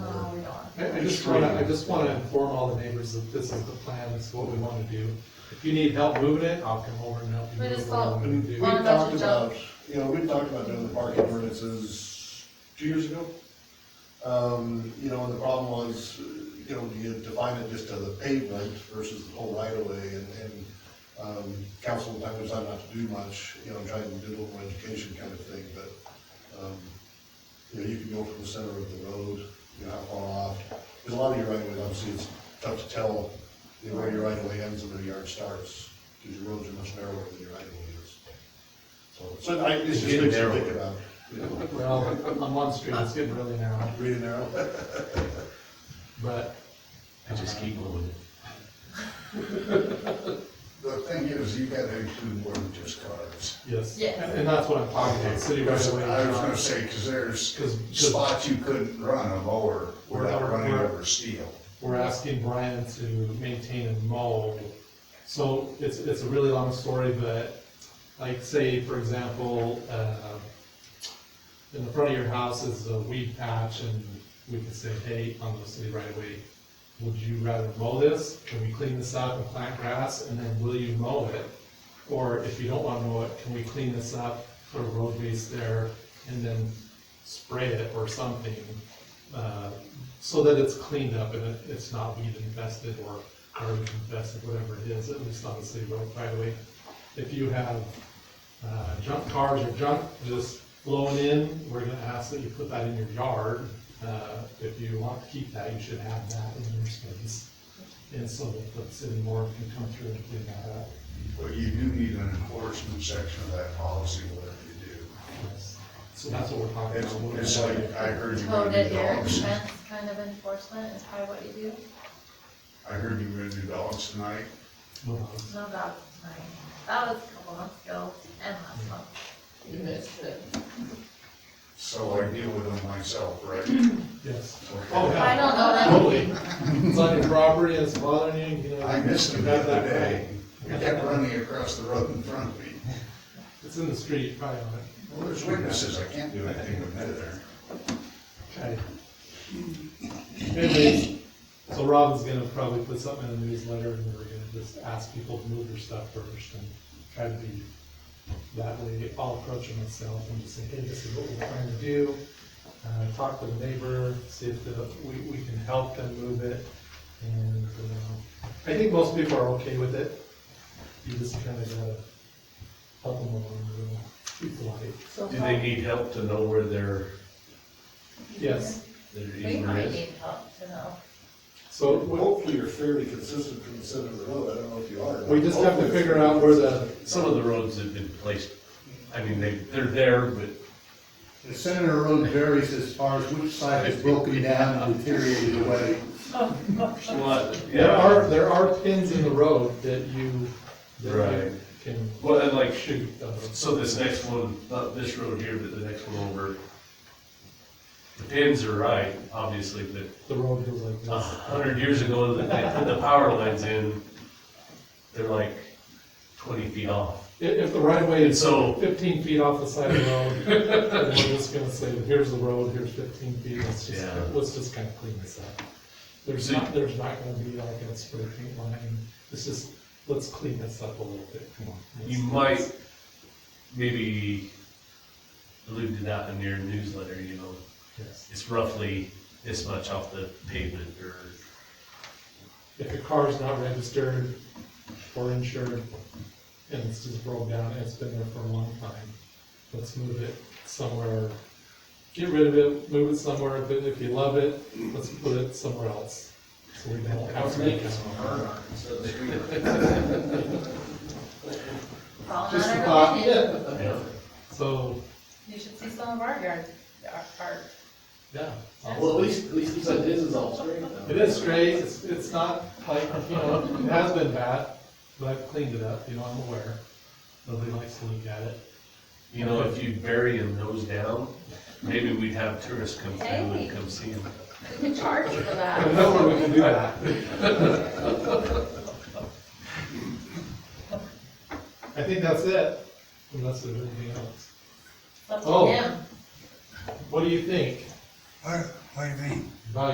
I just wanna, I just wanna inform all the neighbors that this is the plan, this is what we wanna do. If you need help moving it, I'll come over and help you We move just what I thought- wanna do. Well, We I'm talked about to about, you know, we talked about doing the parking ordinances two years ago. Um, you know, and the problem was, you know, do you define it just to the pavement versus the whole right of way and, and, um, council at the time decided not to do much, you know, trying to do a little more education kind of thing, but, um, you know, you can go from the center of the road, you know, how far off. Because a lot of your right of ways, obviously, it's tough to tell, you know, where your right of way ends and where your yard starts, because your roads are much narrower than your right of way is. So, so I, it's just Getting things to narrower. think about, you know, Well, on one street, it's getting really narrow, read and narrow. but. I just keep moving it. The thing is, you gotta include more than just cars. Yes. Yes. And and that's what I'm talking about, city right away. I was gonna say, cause there's Cause just, spots you couldn't run a mower without running over steel. we're asking Brian to maintain and mow. So it's, it's a really long story, but like say, for example, uh, in the front of your house is a weed patch and we could say, hey, on the city right away, would you rather mow this? Can we clean this up and plant grass and then will you mow it? Or if you don't wanna mow it, can we clean this up, put a road base there and then spray it or something? uh, So that it's cleaned up and it- it's not weed infested or garden infested, whatever it is, at least on the city road right away. If you have uh, junk cars or junk just blowing in, we're gonna ask that you put that in your yard. Uh, If you want to keep that, you should have that in your space. And so that the city board can come through and clean that up. But you do need an enforcement section of that policy, whatever you do. Yes. So that's what we're talking It's, about. it's like, I heard you were Towed gonna at do your dogs, expense kind of enforcement is probably what you do. I heard you were gonna do dogs tonight. Well, No, that was mine. That was a couple months ago and last month. You missed it. So I deal with them myself, right? Yes. Okay. Oh, yeah. I don't know that. Totally. It's on your property, it's bothering you, you know. I missed you them the have other that day. right. They kept running across the road in front of me. It's in the street, probably on it. Well, there's witnesses, I can't do anything with that there. Okay. Anyways, so Robin's gonna probably put something in the newsletter and we're gonna just ask people to move their stuff first and try to be that way. I'll approach them myself and just say, hey, this is what we're trying to do. Uh, talk to the neighbor, see if the, we, we can help them move it. And, uh, I think most people are okay with it. You just kinda gotta help them along, you know, be polite. So Do far- they need help to know where their, Yes, their We easement might is? need help to know. so. Well, what- Hopefully you're fairly consistent from the center of the road, I don't know if you are. or not. We just have to Hopefully figure you're out where the, Some of the roads have been placed, I mean, they, they're there, but The center of the road varies as far as which side is broken down and deteriorated away. a lot, there yeah. are, there are pins in the road that you, that you Right. can Well, and like, shoot. uh, those. so this next one, not this road here, but the next one over, the pins are right, obviously, but The road goes like a this. hundred years ago, they they put the power lines in, they're like twenty feet off. If, if the right of way And is so, fifteen feet off the side of the road, then we're just gonna say, here's the road, here's fifteen feet, let's just, Yeah. let's just kind of clean this up. There's So- not, there's not gonna be like a spray paint line, it's just, let's clean this up a little bit, come on. You Let's- might maybe allude to that in your newsletter, you know, Yes. it's roughly this much off the pavement or, if your car's not registered or insured, and it's just broke down, and it's been there for a long time, let's move it somewhere. Get rid of it, move it somewhere, but if you love it, let's put it somewhere else. So we don't have to make it. It's all Just a matter of thought, opinion. yeah. you know, So, You should see some of our yard, our, our. yeah. Well, at least, at least he said his is all straight though. It is straight, it's, it's not like, you know, it has been bad, but I've cleaned it up, you know, I'm aware. Nobody likes to look at it. you know, if you bury them nose down, maybe we'd have tourists come through Hey. and come see them. We can charge for I that. know where we can do that. I think that's it, unless there's anything else. It's up Oh. to him. What do you think What, what do you mean? about